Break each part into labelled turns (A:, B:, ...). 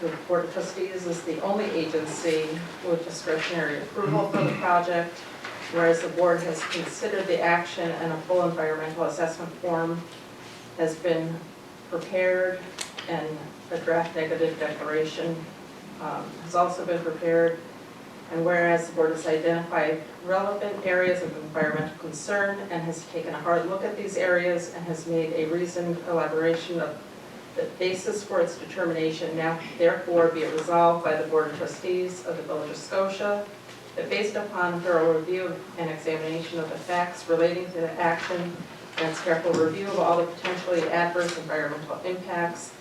A: The Board of Trustees is the only agency with discretionary approval for the project, whereas the board has considered the action and a full environmental assessment form has been prepared and a draft negative declaration um, has also been prepared. And whereas the board has identified relevant areas of environmental concern and has taken a hard look at these areas and has made a reasoned elaboration of the basis for its determination now therefore be it resolved by the Board of Trustees of the Village of Scotia that based upon thorough review and examination of the facts relating to the action and its careful review of all the potentially adverse environmental impacts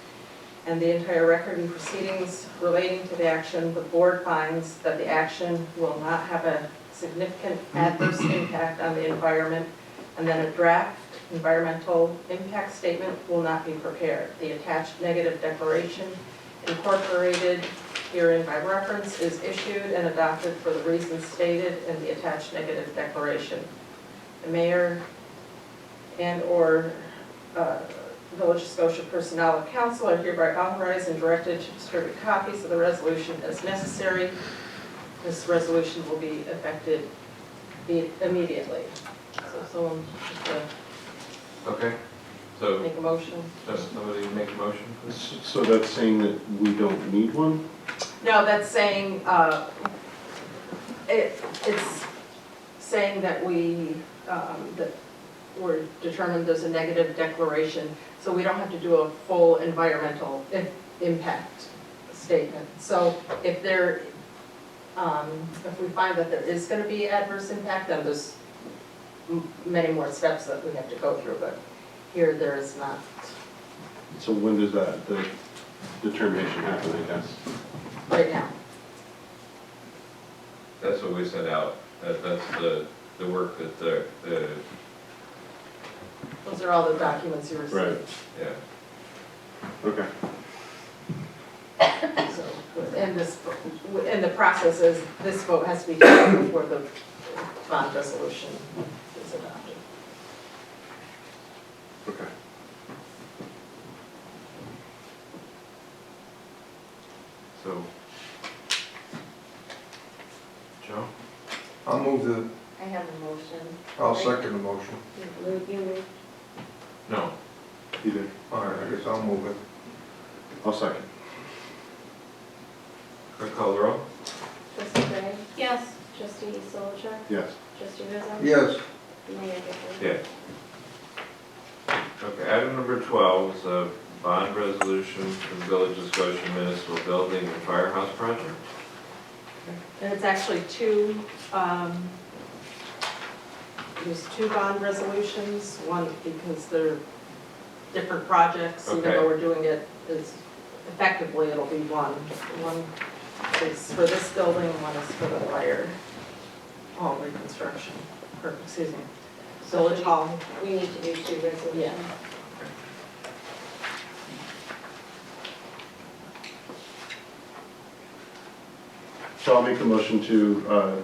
A: and the entire record and proceedings relating to the action, the board finds that the action will not have a significant adverse impact on the environment and then a draft environmental impact statement will not be prepared. The attached negative declaration incorporated herein by reference is issued and adopted for the reasons stated in the attached negative declaration. The mayor and/or uh, Village of Scotia Personnel and Council are hereby authorized and directed to distribute copies of the resolution as necessary. This resolution will be effected be- immediately. So someone just uh,
B: Okay, so
A: Make a motion?
B: does somebody make a motion?
C: S- So that's saying that we don't need one?
A: No, that's saying, uh, it, it's saying that we, um, that we're determined there's a negative declaration, so we don't have to do a full environmental i- impact statement. So if there, um, if we find that there is gonna be adverse impact, then there's m- many more steps that we have to go through, but here there is not.
C: So when does that, the determination happen, I guess?
A: Right now,
B: That's what we sent out, that, that's the, the work that the, the,
A: those are all the documents you received.
B: yeah.
C: Okay.
A: So, And this, and the process is, this vote has to be taken before the bond resolution is adopted.
C: Okay.
B: So. Joe?
D: I'll move the,
E: I have a motion.
D: I'll second the motion.
E: You move- you move.
B: No.
C: You did.
D: All right, I guess I'll move it.
C: I'll second.
B: Clerk call the roll?
E: Trustee Gray? Yes. Trustee Solichak?
C: Yes.
E: Trustee Rizzo?
D: Yes,
E: Mayor Gifford?
B: Yeah. Okay, item number twelve is a bond resolution for the Village of Scotia Municipal Building and Firehouse Project.
A: And it's actually two, um, there's two bond resolutions, one because they're different projects, even
B: Okay.
A: though we're doing it, is effectively, it'll be one. One is for this building, one is for the fire hall reconstruction, or, excuse me, village hall.
E: We need to do two resolutions.
A: Yeah.
C: So I'll make the motion to uh,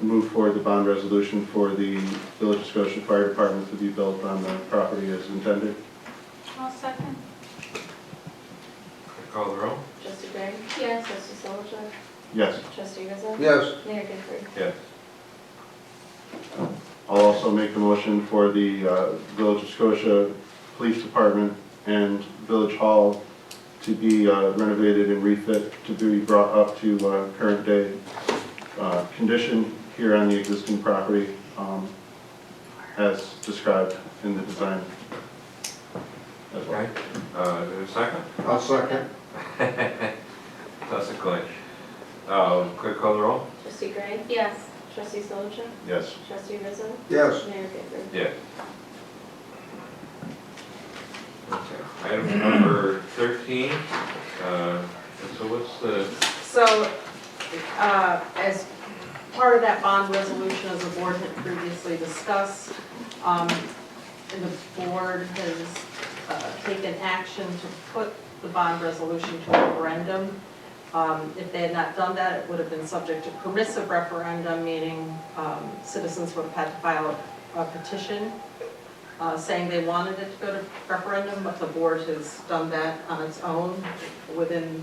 C: move forward the bond resolution for the Village of Scotia Fire Department to be built on the property as intended.
F: I'll second.
B: Clerk call the roll?
E: Trustee Gray? Yes. Trustee Solichak?
C: Yes.
E: Trustee Rizzo?
D: yes,
E: Mayor Gifford?
B: Yes.
C: I'll also make the motion for the uh, Village of Scotia Police Department and Village Hall to be uh, renovated and refit to be brought up to uh, current day uh, condition here on the existing property um, as described in the design. as well.
B: Okay, uh, is there a second?
D: I'll second.
B: That's a clinch. Uh, clerk call the roll?
E: Trustee Gray? Yes. Trustee Solichak?
C: Yes.
E: Trustee Rizzo?
D: Yes,
E: Mayor Gifford?
B: Yeah. Okay. Item number thirteen, uh, so what's the,
A: So, uh, as part of that bond resolution, as the board had previously discussed, um, and the board has uh, taken action to put the bond resolution to referendum. Um, If they had not done that, it would have been subject to permissive referendum, meaning um, citizens would have had to file a petition uh, saying they wanted it to go to referendum, but the board has done that on its own within